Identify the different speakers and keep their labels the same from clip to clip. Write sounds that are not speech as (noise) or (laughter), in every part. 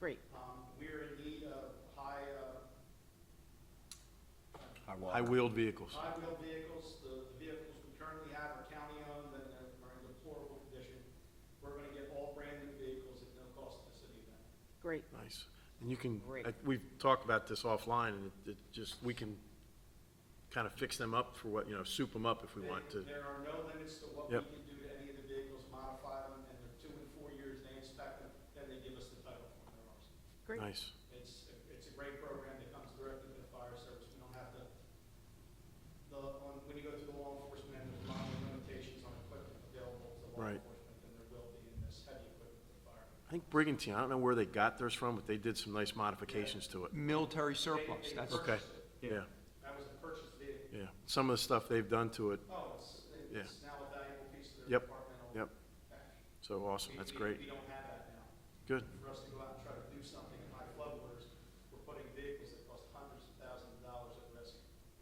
Speaker 1: Great.
Speaker 2: Um, we are in need of high, uh,
Speaker 3: High-wheeled vehicles.
Speaker 2: high-wheel vehicles, the vehicles we currently have are county-owned and are in deplorable condition. We're gonna get all brand-new vehicles at no cost to the city of Benton.
Speaker 1: Great.
Speaker 3: Nice. And you can,
Speaker 1: Great.
Speaker 3: I- we've talked about this offline, and it- it just, we can kind of fix them up for what, you know, soup them up if we want to.
Speaker 2: There- There are no limits to what we
Speaker 3: Yep.
Speaker 2: can do to any of the vehicles, modify them, and they're two and four years, they inspect them, then they give us the title for their ours.
Speaker 1: Great.
Speaker 3: Nice.
Speaker 2: It's, it's a great program that comes directly to the fire service, we don't have to, the, on, when you go through the law enforcement, there's a lot of limitations on equipment available to law
Speaker 3: Right.
Speaker 2: enforcement, than there will be in this heavy equipment for fire.
Speaker 3: I think Brigantine, I don't know where they got theirs from, but they did some nice modifications to it.
Speaker 4: Military
Speaker 2: They-
Speaker 4: surplus,
Speaker 2: they
Speaker 4: that's.
Speaker 3: Okay,
Speaker 2: purchased it.
Speaker 3: yeah,
Speaker 2: That was a purchased vehicle.
Speaker 3: yeah. Some of the stuff they've done to it,
Speaker 2: Oh, it's, it's now a valuable piece of their
Speaker 3: Yep,
Speaker 2: departmental.
Speaker 3: yep,
Speaker 2: cash.
Speaker 3: so awesome,
Speaker 2: We-
Speaker 3: that's
Speaker 2: we-
Speaker 3: great,
Speaker 2: We don't have that now.
Speaker 3: good.
Speaker 2: For us to go out and try to do something in high flood waters, we're putting vehicles that cost hundreds of thousands of dollars at risk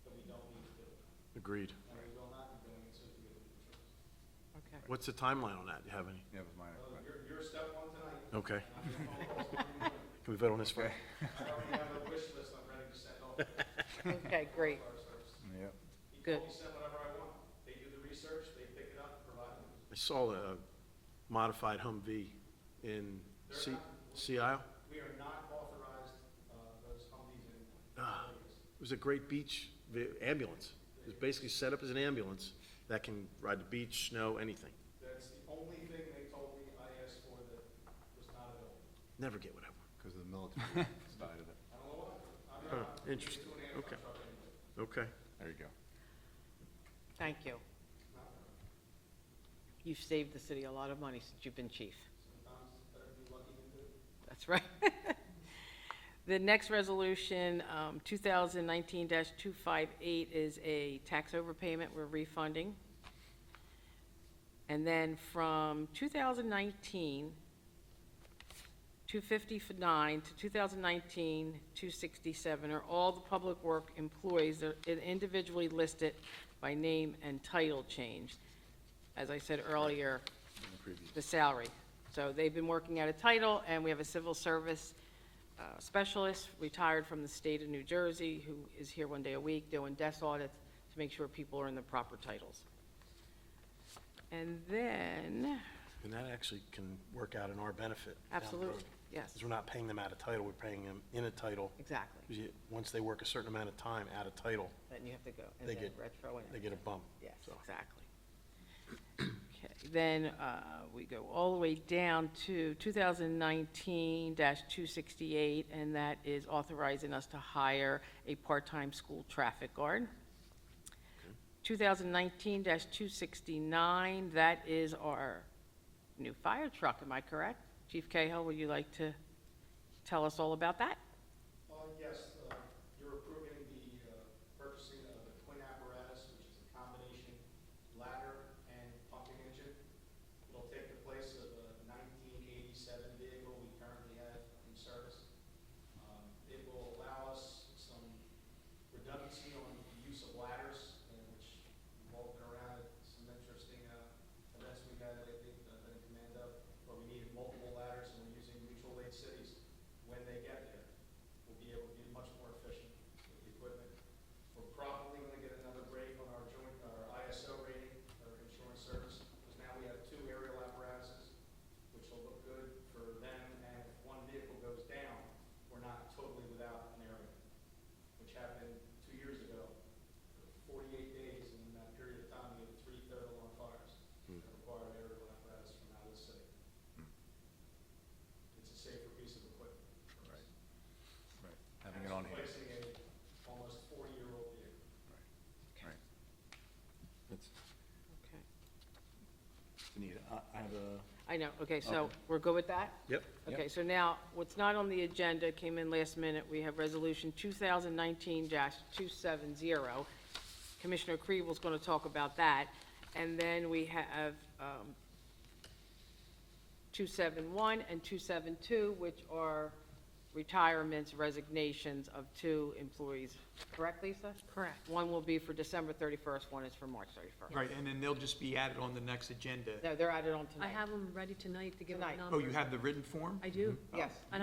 Speaker 2: that we don't need to do.
Speaker 3: Agreed.
Speaker 2: And we will not be doing it, so we will.
Speaker 1: Okay.
Speaker 3: What's the timeline on that? Do you have any?
Speaker 4: That was my
Speaker 2: So you're, you're step one tonight.
Speaker 3: Okay.
Speaker 2: and I'm gonna follow up on you.
Speaker 3: Can we vote on this one?
Speaker 2: I already have a wish list I'm ready to send off. to the
Speaker 1: Okay, great.
Speaker 2: fire service.
Speaker 4: Yeah.
Speaker 2: You can
Speaker 1: Good.
Speaker 2: only send whatever I want. They do the research, they pick it up, provide it.
Speaker 3: I saw a modified Humvee in Sea, Sea Isle.
Speaker 2: We are not authorized, uh, those Humvees in
Speaker 3: Ah.
Speaker 2: areas.
Speaker 3: It was a great beach vi- ambulance. It was basically set up as an ambulance that can ride the beach, snow, anything.
Speaker 2: That's the only thing they told me I asked for that was not available.
Speaker 3: Never get what I want.
Speaker 5: Because of the (laughs) military side of it.
Speaker 2: I don't know why. I'm
Speaker 3: Huh,
Speaker 2: not- I'm
Speaker 3: interesting.
Speaker 2: two and a half
Speaker 3: Okay.
Speaker 2: truck anyway.
Speaker 3: Okay.
Speaker 5: There you go.
Speaker 1: Thank you.
Speaker 2: Not bad.
Speaker 1: You've saved the city a lot of money since you've been chief.
Speaker 2: Sometimes it's better to be lucky than good.
Speaker 1: That's right. (laughs) The next resolution, um, 2019-258, is a tax overpayment we're refunding. And then from 2019, 259 to 2019, 267 are all the public work employees that are individually listed by name and title changed. As I said earlier, the salary. So they've been working at a title, and we have a civil service uh, specialist retired from the state of New Jersey who is here one day a week doing desk audits to make sure people are in the proper titles. And then,
Speaker 3: And that actually can work out in our benefit. down the
Speaker 1: Absolutely,
Speaker 3: road.
Speaker 1: yes.
Speaker 3: Because we're not paying them out of title, we're paying them in a title.
Speaker 1: exactly,
Speaker 3: 'Cause you- Once they work a certain amount of time out of title,
Speaker 1: then you have to go, and
Speaker 3: They
Speaker 1: then
Speaker 3: get-
Speaker 1: retro and
Speaker 3: they get a bump.
Speaker 1: Yes,
Speaker 3: So,
Speaker 1: exactly. Okay, then uh, we go all the way down to 2019-268, and that is authorizing us to hire a part-time school traffic guard. 2019-269, that is our new fire truck, am I correct? Chief Cahill, would you like to tell us all about that?
Speaker 2: Uh, yes, uh, you're approving the uh, purchasing of the twin apparatus, which is a combination ladder and pumping engine. It'll take the place of a nineteen eighty-seven vehicle we currently have in service. Um, It will allow us some redundancy on the use of ladders, uh, which we've all been around at some interesting uh, events we've had lately, uh, been in command of, where we needed multiple ladders and we're using mutual aid cities when they get there we'll be able to be much more efficient with the equipment. We're probably gonna get another break on our joint, our ISO rating, our insurance service, because now we have two aerial apparatuses, which will look good for them, and if one vehicle goes down, we're not totally without an aerial, which happened two years ago. Forty-eight days, and in that period of time, we had three third alarm fires that required aerial apparatus from out of the city. It's a safer piece of equipment. for us.
Speaker 5: Having it on hand.
Speaker 2: Replacing a almost forty-year-old vehicle.
Speaker 5: That's
Speaker 1: Okay.
Speaker 5: neat. I, I have a,
Speaker 1: I know, okay, so we're good with that?
Speaker 3: Yep.
Speaker 1: Okay, so now, what's not on the agenda came in last minute. We have Resolution 2019-270. Commissioner Kriebel's going to talk about that. And then we have um, 271 and 272, which are retirements, resignations of two employees. Correct, Lisa?
Speaker 6: Correct.
Speaker 1: One will be for December 31st, one is for March 31st.
Speaker 4: Right, and then they'll just be added on the next agenda.
Speaker 1: No, they're added on
Speaker 6: I
Speaker 1: tonight.
Speaker 6: have them ready tonight to give a
Speaker 1: Tonight.
Speaker 6: number.
Speaker 4: Oh, you have the written form?
Speaker 6: I do.
Speaker 1: Yes.
Speaker 6: And